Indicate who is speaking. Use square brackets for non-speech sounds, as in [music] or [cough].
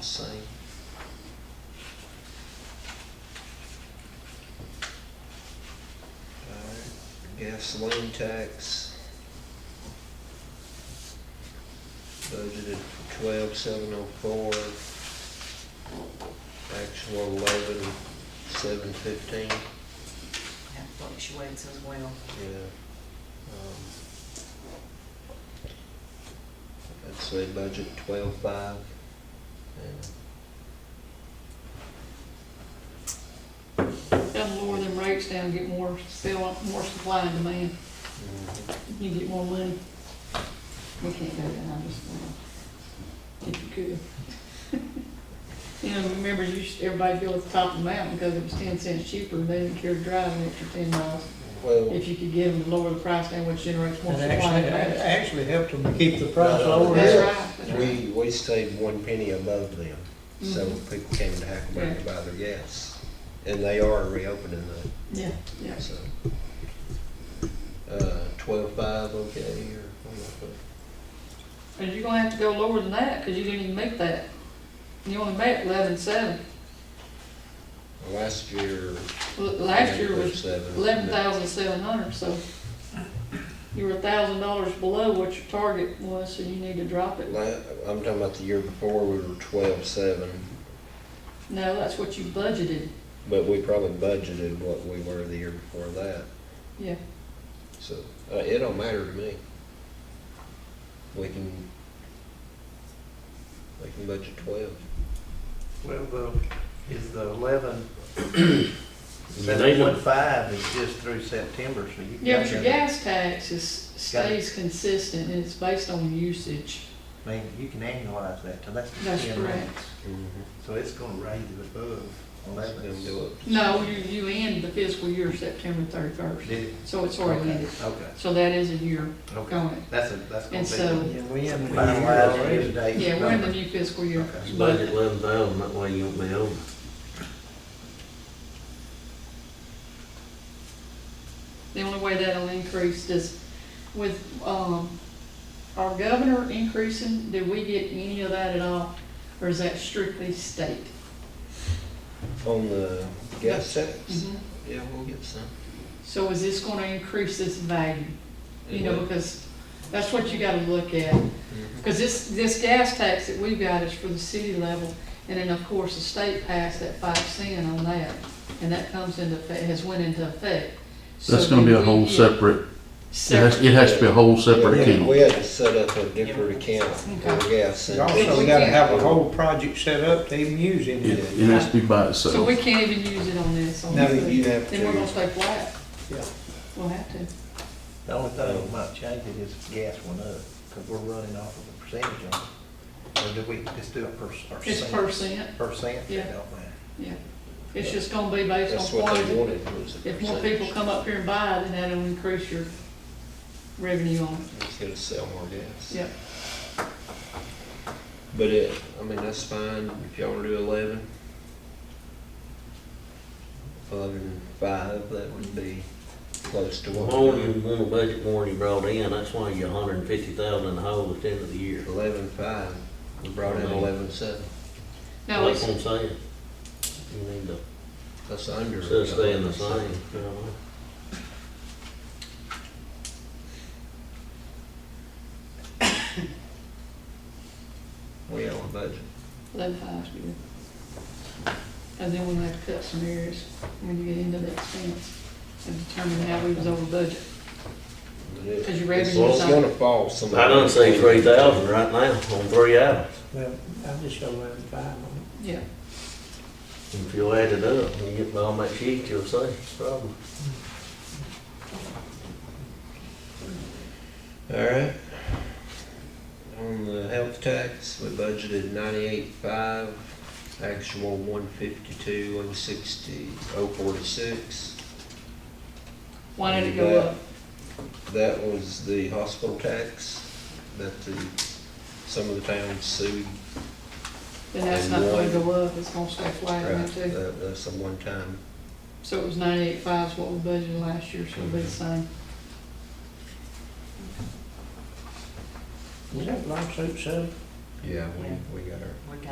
Speaker 1: see. Alright, Gasoline tax. Budgeted twelve seven oh four. Actual eleven seven fifteen,
Speaker 2: That fluctuates as well.
Speaker 1: yeah. Um, I'd say budget twelve five. And
Speaker 3: Gotta lower them rates down, get more, sell, more supply and demand, you get more money. We can't do that, I'm just, saying. if you could. [laughs] You know, remember, you should, everybody go at the top of the mountain, because it was ten cents cheaper, and they didn't care to drive an extra ten miles.
Speaker 1: Well,
Speaker 3: If you could get them to lower the price down, which generates more
Speaker 4: And
Speaker 3: supply
Speaker 4: actually,
Speaker 3: and
Speaker 4: it
Speaker 3: demand.
Speaker 4: actually uh, helped them keep the price lower.
Speaker 3: That's right, that's right.
Speaker 1: we, we stayed one penny above them, so
Speaker 3: Mhm.
Speaker 1: people came to Hackleburg to buy their gas. And they are reopening
Speaker 3: Yeah, yeah.
Speaker 1: that, so. Uh, twelve-five, okay, or, I'm not sure.
Speaker 3: But you're gonna have to go lower than that, because you didn't even make that. You only made eleven-seven.
Speaker 1: last year.
Speaker 3: Last year was
Speaker 1: seven.
Speaker 3: eleven thousand seven hundred, so you were a thousand dollars below what your target was, so you need to drop it.
Speaker 1: La- I'm talking about the year before, we were twelve-seven,
Speaker 3: No, that's what you budgeted,
Speaker 1: but we probably budgeted what we were the year before that,
Speaker 3: yeah.
Speaker 1: so, uh, it don't matter to me. We can, we can budget twelve.
Speaker 5: Well, though, is the
Speaker 1: [clears throat]
Speaker 5: eleven,
Speaker 1: They
Speaker 5: seven
Speaker 1: don't-
Speaker 5: one five is just through September, so you.
Speaker 3: Yeah, but your
Speaker 5: can-
Speaker 3: gas tax is, stays consistent, and it's based on usage.
Speaker 5: I mean, you can annualize that, so that's the
Speaker 3: That's
Speaker 5: ten
Speaker 3: correct.
Speaker 5: rates. So it's gonna raise it above
Speaker 1: Let them do
Speaker 5: eleven.
Speaker 1: it.
Speaker 3: No, you, you end the fiscal year September thirty-first,
Speaker 5: Did it?
Speaker 3: so it's already ended,
Speaker 5: Okay,
Speaker 3: so that is a year
Speaker 5: okay.
Speaker 3: going.
Speaker 5: That's a, that's
Speaker 3: And
Speaker 5: gonna
Speaker 3: so-
Speaker 4: Yeah, we
Speaker 5: be
Speaker 4: haven't.
Speaker 5: finalized year-to-date.
Speaker 3: Yeah, we're in the
Speaker 5: number.
Speaker 3: new fiscal year,
Speaker 5: Okay.
Speaker 3: but,
Speaker 6: Budget eleven thousand, that way you won't be over.
Speaker 3: The only way that'll increase is with, um, our governor increasing, did we get any of that at all? Or is that strictly state?
Speaker 1: On the gas tax?
Speaker 3: Mhm.
Speaker 1: Yeah, we'll get some.
Speaker 3: So is this gonna increase this value? You
Speaker 1: It
Speaker 3: know,
Speaker 1: will.
Speaker 3: because that's what you gotta look at. Because this, this gas tax that we've got is for the city level, and then of course, the state passed that five cent on that, and that comes into, effect- has went into effect.
Speaker 7: That's
Speaker 3: So
Speaker 7: gonna be a
Speaker 3: we
Speaker 7: whole
Speaker 3: get
Speaker 7: separate, it has,
Speaker 3: Separate.
Speaker 7: it has to be a whole separate
Speaker 1: Yeah,
Speaker 7: account.
Speaker 1: We had to set up a different account for gas.
Speaker 4: You
Speaker 1: and-
Speaker 4: also gotta have a whole project set up to even use it.
Speaker 7: It, it has to be by
Speaker 3: So we
Speaker 7: itself.
Speaker 3: can't even use it on this, on
Speaker 1: No,
Speaker 3: this.
Speaker 1: you have
Speaker 3: Then we're
Speaker 1: to.
Speaker 3: gonna stay flat.
Speaker 4: Yeah.
Speaker 3: We'll have to.
Speaker 5: The only thing that might change it is if gas went up, because we're running off of a percentage on it. Or do we just do it per, per
Speaker 3: It's
Speaker 5: cent?
Speaker 3: percent,
Speaker 5: Percent,
Speaker 3: Yeah.
Speaker 5: don't matter.
Speaker 3: yeah. It's just gonna be based
Speaker 1: That's
Speaker 3: on
Speaker 1: what they
Speaker 3: quantity.
Speaker 1: wanted was a percentage.
Speaker 3: If more people come up here and buy it, then that'll increase your revenue on it.
Speaker 1: It's gonna sell more gas.
Speaker 3: Yep.
Speaker 1: But it, I mean, that's fine if y'all wanna do eleven. Eleven five, that would be close to what.
Speaker 6: More than you want to budget more than you brought in, that's why you're hundred and fifty thousand in the hole at the end of the year.
Speaker 1: Eleven five, we brought in
Speaker 6: Mhm.
Speaker 1: eleven seven.
Speaker 3: Now,
Speaker 6: That's
Speaker 3: it's,
Speaker 6: what I'm saying. You need to,
Speaker 1: That's under.
Speaker 6: instead of staying the same, you know.
Speaker 1: We on budget.
Speaker 3: eleven five's good. And then we'll have to cut some areas when you get into the expense and determine how we was over budget. Cause your
Speaker 1: It's
Speaker 3: revenue's
Speaker 1: gonna
Speaker 3: on,
Speaker 1: fall some.
Speaker 6: I done say three thousand right now on three items.
Speaker 4: Well, I just show eleven five on it.
Speaker 3: yeah.
Speaker 6: If you add it up, when you get by on that sheet, you'll see, probably.
Speaker 1: Alright. On the health tax, we budgeted ninety-eight five, actual one fifty-two, one sixty, oh forty-six.
Speaker 3: Why did it go up?
Speaker 1: That was the hospital tax that the, some of the towns sued.
Speaker 3: Then that's not gonna go up, it's gonna stay flat,
Speaker 1: Right,
Speaker 3: right there.
Speaker 1: that- That's a one-time.
Speaker 3: So it was ninety-eight five is what we budgeted last year, so it'll be the same.
Speaker 4: Is that lawsuit settled?
Speaker 1: Yeah, we, we got our
Speaker 2: We got